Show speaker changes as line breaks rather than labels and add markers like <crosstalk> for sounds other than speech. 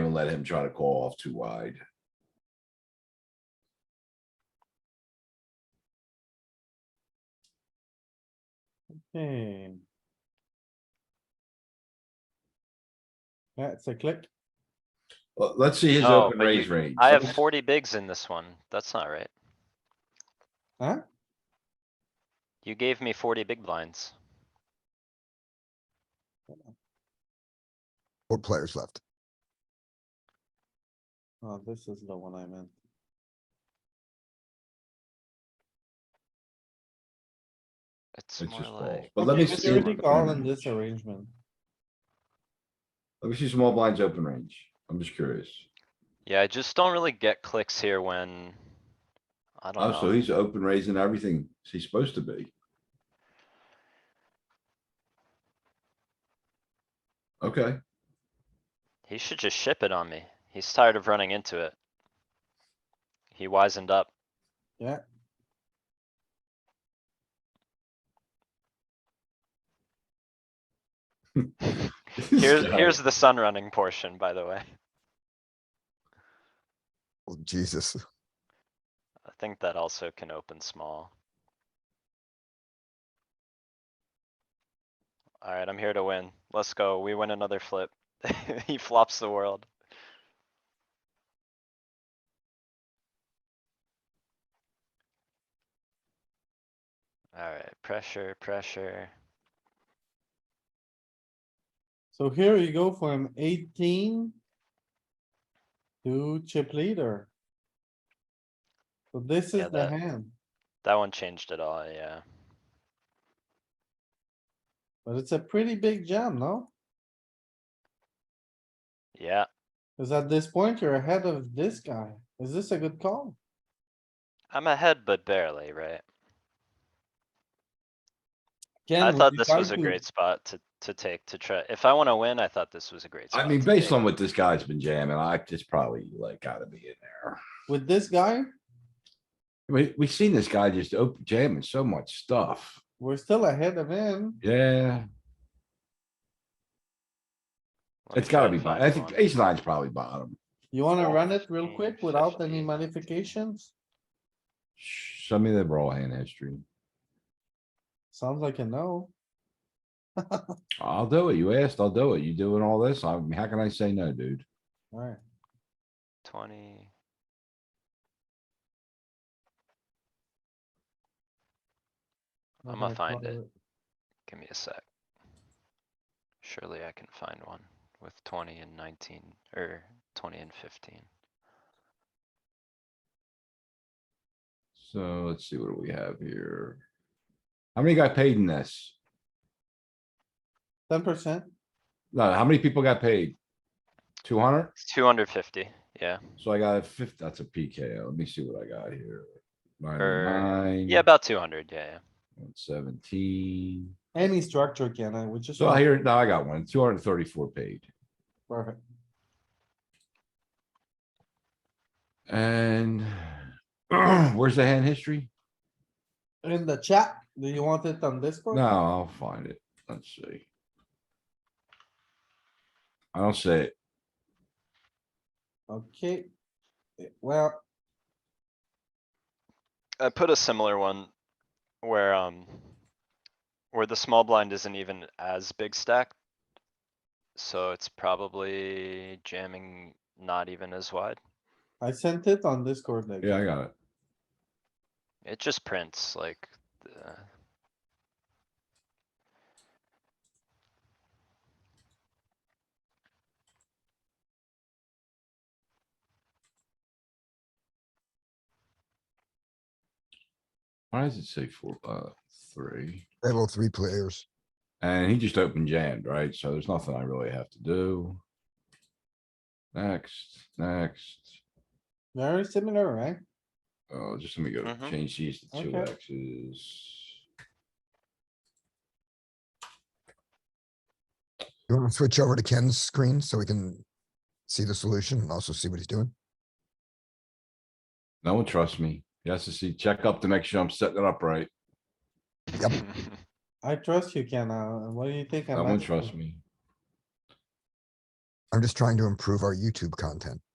let him try to call off too wide.
Hey. That's a click.
Let- Let's see his
Oh,
open
but you-
raise range.
I
<laughs>
have
Let's-
forty bigs in this one. That's not right.
Huh?
You gave me forty big blinds.
Four players left.
Oh, this is the one I meant.
It's
It's
more
just calls.
like,
But let me
Okay,
see.
You already
him
call
open
in this
range.
arrangement.
Let me see small blinds open range. I'm just curious.
yeah, I just don't really get clicks here when. I
Oh,
don't
so
know.
he's open raising everything he's supposed to be. Okay, <laughs>
He should just ship it on me. He's tired of running into it. He wisened up. Here's,
guy.
here's the sun running portion, by the way.
Oh, Jesus.
I think that also can open small. Alright, I'm here to win. Let's go. We win another flip. <laughs> He flops the world. Alright, pressure, pressure.
So here you go from eighteen. To chip leader. So this
Yeah,
is the
that-
hand,
That one changed it all, yeah.
but it's a pretty big jam, no?
Yeah,
Cause at this point, you're ahead of this guy. Is this a good call?
I'm ahead, but barely, right?
Ken,
I
would
thought
you
this
like
was a
to-
great spot to, to take, to try. If I wanna win, I thought this was a great spot.
I mean,
to
based
take.
on what this guy's been jamming, I just probably like gotta be in there.
With this guy,
We, we've seen this guy just open jamming so much stuff.
we're still ahead of him.
Yeah,
Let me
it's
try
gotta be,
and
bo-
find
I think
one.
ace nine's probably bottom.
You wanna
Oh,
run it real quick
15,
without any
15.
modifications?
Show me the raw hand history.
Sounds like a no.
I'll do it. You asked, I'll do it. You doing all this? I'm, how can I say no, dude?
Alright,
Twenty.
not
I'ma
gonna
find
call
it. Give me a sec. Surely I can find one with twenty and nineteen, or twenty and fifteen.
So let's see, what do we have here? How many got paid in this?
Ten percent,
No, how many people got paid? Two hundred?
It's two hundred fifty, yeah.
So I got a fifth, that's a PKO. Let me see what I got here.
Er,
Ninety-nine.
Yeah, about two hundred, yeah,
Seventeen.
any structure, Ken, I would just.
So
want-
here, now I got one, two hundred and thirty-four paid.
Perfect.
And <clears throat> where's the hand history?
In the chat, do you want it on Discord?
No, I'll find it. Let's see. I don't see it.
Okay. Eh, Well,
yeah. I put a similar one where, um, where the small blind isn't even as big stacked. So it's probably jamming not even as wide.
I sent it on Discord. like,
Yeah, I got it.
It just prints like, uh,
Why does it say four, uh, three?
Level three players.
And he just opened jammed, right? So there's nothing I really have to do. Next, next.
Very similar, right?
Oh, just let me go
Mhm.
change these to two
Okay.
X's.
You want to switch over to Ken's screen so we can see the solution and also see what he's doing?
No one trusts me. He has to see, check up to make sure I'm setting it up right.
<laughs>
I trust you, Ken. uh, What do you think?
No
I'm
one
asking?
trusts me.
I'm just trying to improve our YouTube content.